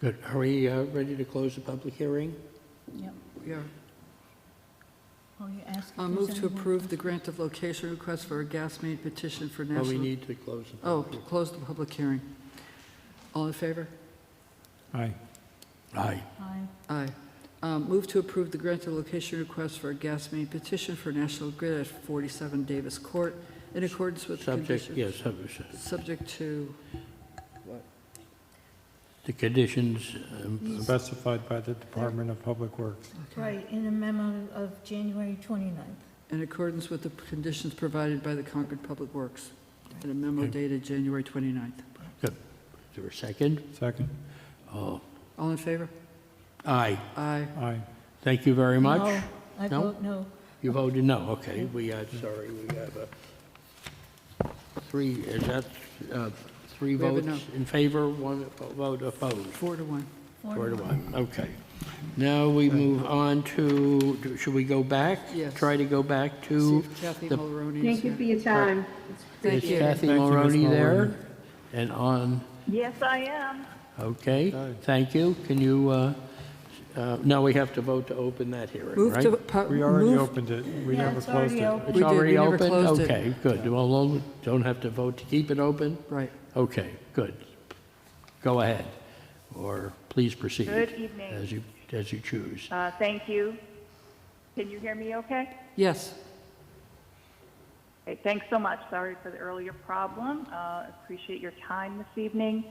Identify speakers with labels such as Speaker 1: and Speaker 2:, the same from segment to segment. Speaker 1: Good. Are we uh, ready to close the public hearing?
Speaker 2: Yep.
Speaker 3: We are.
Speaker 2: Oh, you asked if
Speaker 3: Uh,
Speaker 2: there's
Speaker 3: Move to
Speaker 2: anyone-
Speaker 3: approve the grant of location request for a gas main petition for
Speaker 1: Well, we
Speaker 3: national.
Speaker 1: need to close the
Speaker 3: Oh,
Speaker 1: public
Speaker 3: to close the public hearing. All in favor?
Speaker 4: Aye.
Speaker 1: hearing. Aye.
Speaker 2: Aye.
Speaker 3: Aye. Um, Move to approve the grant of location request for a gas main petition for National Grid at 47 Davis Court in accordance with the
Speaker 1: Subject,
Speaker 3: conditions.
Speaker 1: yes, subject-
Speaker 3: Subject to,
Speaker 1: the conditions, um,
Speaker 4: Specified by the Department of Public Works.
Speaker 2: Right, in a memo of January 29th.
Speaker 3: in accordance with the conditions provided by the Concord Public Works in a memo dated January 29th.
Speaker 1: is there a second?
Speaker 4: Second?
Speaker 1: Oh,
Speaker 3: All in favor?
Speaker 1: Aye.
Speaker 3: Aye.
Speaker 4: Aye.
Speaker 1: Thank you very much.
Speaker 2: No, I
Speaker 1: No?
Speaker 2: vote no.
Speaker 1: You voted no, okay. We, uh, sorry, we have a three, is that uh, three
Speaker 3: We have a no.
Speaker 1: votes in favor, one vote opposed?
Speaker 3: Four to one.
Speaker 2: Four
Speaker 1: Four to
Speaker 2: no.
Speaker 1: one, okay. Now we move on to, should we go back?
Speaker 3: Yes.
Speaker 1: Try to go back
Speaker 3: See
Speaker 1: to,
Speaker 3: if Kathy
Speaker 1: the-
Speaker 3: Mulroney is
Speaker 5: Thank you
Speaker 3: here.
Speaker 5: for your time.
Speaker 1: is
Speaker 3: Thank you.
Speaker 1: Kathy
Speaker 4: Thank you, Ms.
Speaker 1: Mulroney
Speaker 4: Mulroney.
Speaker 1: there? And on,
Speaker 6: Yes, I am.
Speaker 1: okay,
Speaker 4: Aye.
Speaker 1: thank you. Can you, uh, uh, now we have to vote to open that hearing,
Speaker 3: Move
Speaker 1: right?
Speaker 3: to, pu-
Speaker 4: We already
Speaker 3: move,
Speaker 4: opened it. We
Speaker 2: Yeah,
Speaker 4: never
Speaker 2: it's
Speaker 4: closed
Speaker 2: already
Speaker 4: it.
Speaker 2: open.
Speaker 1: It's
Speaker 3: We did, we
Speaker 1: already
Speaker 3: never
Speaker 1: open?
Speaker 3: closed it.
Speaker 1: Okay, good. Well, we don't have to vote to keep it open?
Speaker 3: right.
Speaker 1: Okay, good. Go ahead, or please proceed.
Speaker 6: Good evening.
Speaker 1: As you, as you choose.
Speaker 6: Uh, Thank you. Can you hear me okay?
Speaker 3: Yes.
Speaker 6: Okay, thanks so much. Sorry for the earlier problem. Uh, Appreciate your time this evening.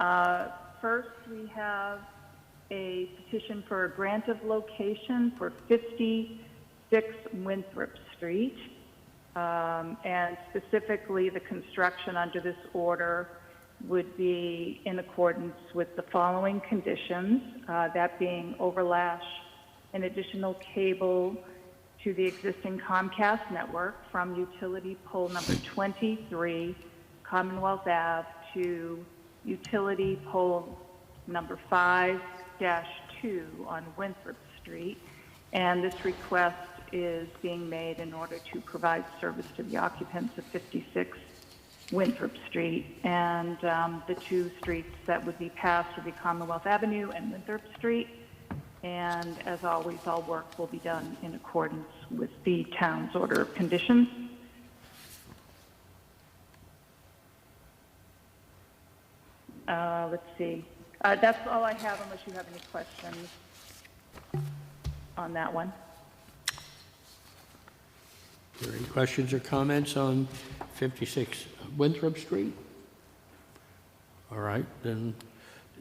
Speaker 6: Uh, First, we have a petition for a grant of location for 56 Winthrop Street, Um, and specifically, the construction under this order would be in accordance with the following conditions, uh, that being overlash, an additional cable, to the existing Comcast network from utility pole number 23 Commonwealth Ave to utility pole number 5-2 on Winthrop Street. And this request is being made in order to provide service to the occupants of 56 Winthrop Street. And um, the two streets that would be passed would be Commonwealth Avenue and Winthrop Street. And as always, all work will be done in accordance with the town's order of conditions. Uh, Let's see. Uh, That's all I have unless you have any questions on that one.
Speaker 1: Are there any questions or comments on 56 Winthrop Street? All right, then,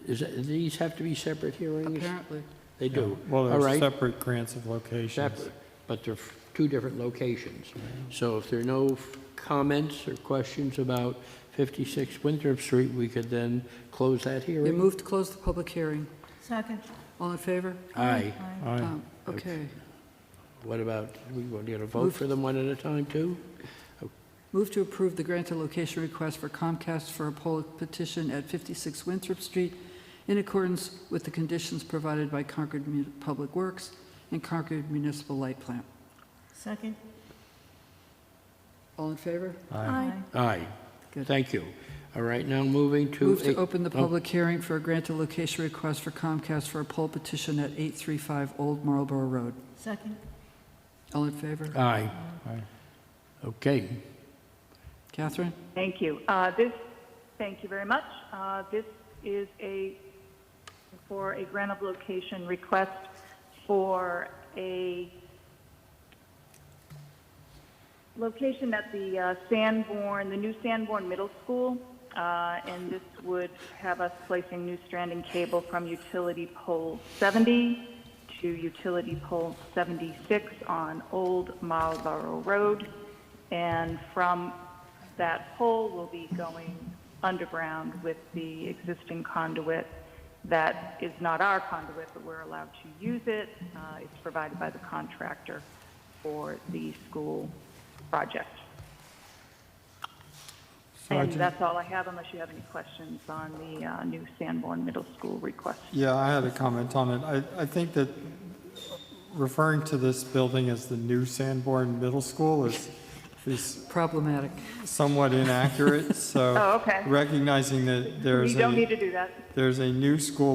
Speaker 1: is, it- these have to be separate hearings?
Speaker 3: Apparently.
Speaker 1: They do.
Speaker 4: Well,
Speaker 1: All
Speaker 4: there's
Speaker 1: right,
Speaker 4: separate grants of locations.
Speaker 1: separate, but they're f- two different locations. So if there are no f- comments or questions about 56 Winthrop Street, we could then close that
Speaker 3: They
Speaker 1: hearing?
Speaker 3: moved to close the public hearing.
Speaker 2: Second.
Speaker 3: All in favor?
Speaker 1: Aye.
Speaker 4: Aye.
Speaker 3: Um, Okay.
Speaker 1: What about, we going to get a vote for them one at a time, too?
Speaker 3: Move to approve the grant of location request for Comcast for a poll petition at 56 Winthrop Street in accordance with the conditions provided by Concord Mu- Public Works and Concord Municipal Light Plant.
Speaker 2: Second.
Speaker 3: All in favor?
Speaker 2: Aye.
Speaker 1: Aye.
Speaker 3: Good.
Speaker 1: Thank you. All right, now moving to...
Speaker 3: Move to
Speaker 1: eight-
Speaker 3: open the
Speaker 1: oh,
Speaker 3: public hearing for a grant of location request for Comcast for a poll petition at 835 Old Marlborough Road.
Speaker 2: Second.
Speaker 3: All in favor?
Speaker 1: Aye.
Speaker 4: Aye.
Speaker 1: Okay,
Speaker 3: Catherine?
Speaker 6: Thank you. Uh, This, thank you very much. Uh, This is a, for a grant of location request for a location at the uh, Sanborn, the new Sanborn Middle School, uh, and this would have us placing new stranding cable from utility pole 70 to utility pole 76 on Old Marlborough Road, and from that pole will be going underground with the existing conduit that is not our conduit, but we're allowed to use it. Uh, It's provided by the contractor for the school project. And
Speaker 4: Sergeant?
Speaker 6: that's all I have unless you have any questions on the uh, new Sanborn Middle School request.
Speaker 4: Yeah, I had a comment on it. I, I think that referring to this building as the new Sanborn Middle School is, is
Speaker 3: Problematic.
Speaker 4: somewhat inaccurate, so.
Speaker 6: Oh, okay.
Speaker 4: Recognizing that there's
Speaker 6: You don't need
Speaker 4: a,
Speaker 6: to do that.
Speaker 4: there's a new school